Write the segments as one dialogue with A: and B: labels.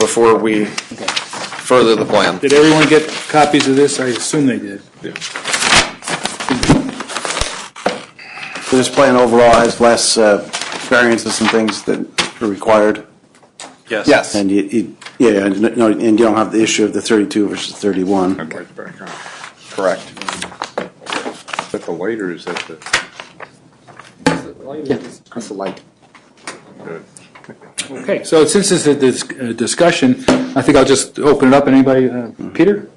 A: before we further the plan.
B: Did everyone get copies of this? I assume they did.
C: So This plan overall has less uh, variances and things that are required?
B: Yes.
C: And you- you, yeah, and no, and you don't have the issue of the 32 versus 31.
D: Right back on.
A: Correct.
D: But the lighter is at the,
A: That's the light.
D: the-
B: Okay, so since this is a dis- uh, discussion, I think I'll just open it up. Anybody, uh, Peter?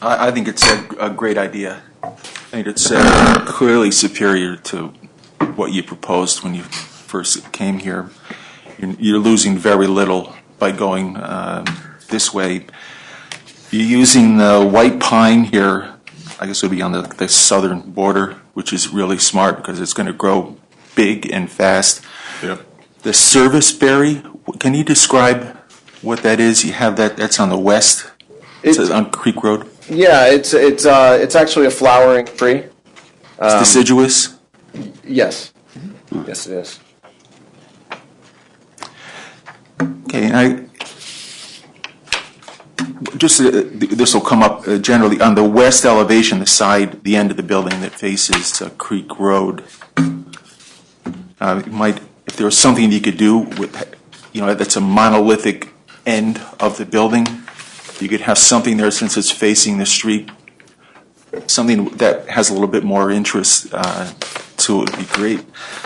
E: I, I think it's a, a great idea. I think it's uh, clearly superior to what you proposed when you first came here. You're, you're losing very little by going um, this way. You're using the white pine here, I guess it would be on the, the southern border, which is really smart because it's going to grow big and fast. The service berry, can you describe what that is? You have that, that's on the west, it's
A: It's-
E: on Creek Road.
A: Yeah, it's, it's, uh, it's actually a flowering tree.
E: It's deciduous.
A: Yes. Yes, it is.
E: Okay, and I, just, uh, th- this will come up uh, generally, on the west elevation, the side, the end of the building that faces uh, Creek Road, uh, you might, if there was something you could do with, you know, that's a monolithic end of the building, you could have something there since it's facing the street, something that has a little bit more interest uh, to it would be great.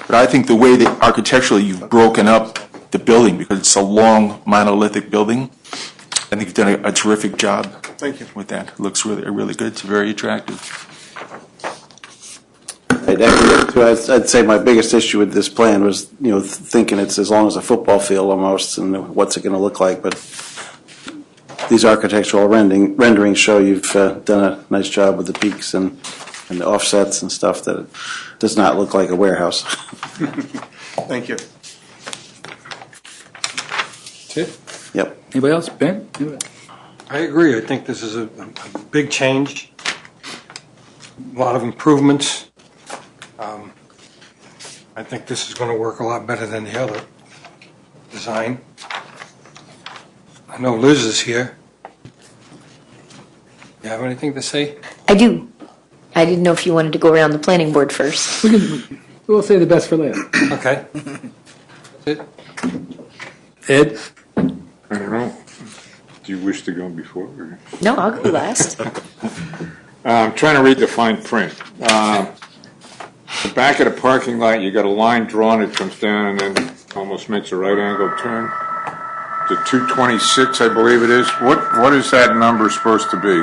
E: But I think the way that architecturally you've broken up the building, because it's a long monolithic building, I think you've done a a terrific job. Thank you. With that, looks really, really good, it's very attractive.
C: I'd echo- so I'd I'd say my biggest issue with this plan was, you know, thinking it's as long as a football field almost, and what's it going to look like? But these architectural rendering, renderings show you've uh, done a nice job with the peaks and, and the offsets and stuff that it does not look like a warehouse.
F: Thank you.
C: Yep.
B: Anybody else? Ben?
F: I agree. I think this is a, a big change, a lot of improvements. Um, I think this is going to work a lot better than the other design. I know Liz is here. You have anything to say?
G: I do. I didn't know if you wanted to go around the planning board first.
B: We'll say the best for last.
F: Okay. That's it.
B: Ed?
D: I don't know. Do you wish to go before? or-
G: No, I'll go last.
D: Uh, I'm trying to read the fine print. Uh, The back of the parking lot, you got a line drawn, it comes down and then almost makes a right angle turn. The 226, I believe it is. What, what is that number supposed to be?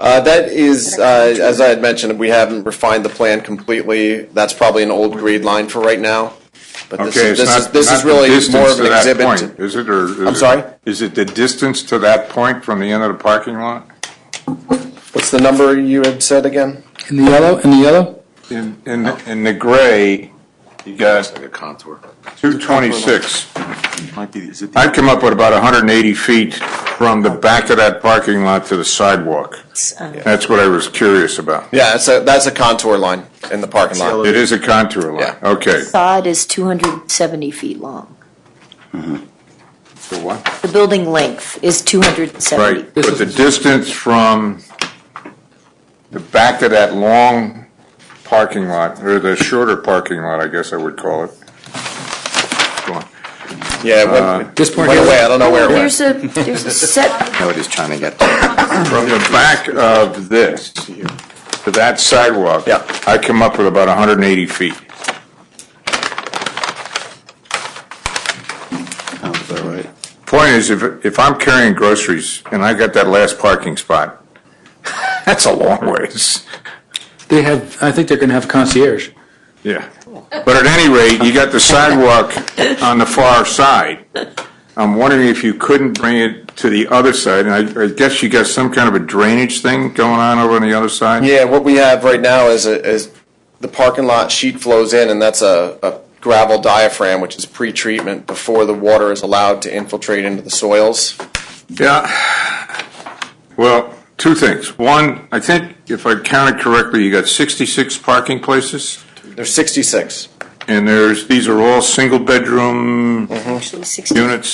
A: Uh, that is, uh, as I had mentioned, we haven't refined the plan completely. That's probably an old grade line for right now. But this
D: Okay,
A: is, this
D: it's
A: is,
D: not,
A: this
D: not
A: is
D: the
A: really more
D: distance
A: of
D: to
A: an
D: that
A: exhibit.
D: point, is it, or? is
A: I'm
D: it-
A: sorry?
D: Is it the distance to that point from the end of the parking lot?
A: What's the number you had said again?
B: In the yellow? In the yellow?
D: In, in, in the gray, you got
A: contour.
D: 226.
E: Might be, is it?
D: I've come up with about 180 feet from the back of that parking lot to the sidewalk.
G: Um,
D: That's what I was curious about.
A: Yeah, so that's a contour line in the parking lot.
D: It is a contour line,
A: Yeah.
D: okay.
G: Sod is 270 feet long.
D: The what?
G: The building length is 270.
D: Right, but the distance from the back of that long parking lot, or the shorter parking lot, I guess I would call it. Go on.
A: Yeah, it
D: Uh,
A: went,
B: This part
A: went
B: here?
A: away. I don't know where it went.
G: There's a, there's a set,
D: From the back of this to that sidewalk.
A: Yeah.
D: I come up with about 180 feet.
C: Sounds about right.
D: Point is, if, if I'm carrying groceries and I got that last parking spot, that's a long ways.
B: They have, I think they're going to have concierge.
D: Yeah. But at any rate, you got the sidewalk on the far side. I'm wondering if you couldn't bring it to the other side, and I, I guess you got some kind of a drainage thing going on over on the other side?
A: Yeah, what we have right now is, a- is the parking lot sheet flows in, and that's a a gravel diaphragm, which is pre-treatment before the water is allowed to infiltrate into the soils.
D: Yeah. Well, two things. One, I think if I counted correctly, you got 66 parking places?
A: There's 66.
D: and there's, these are all single-bedroom
G: actually 16.
D: units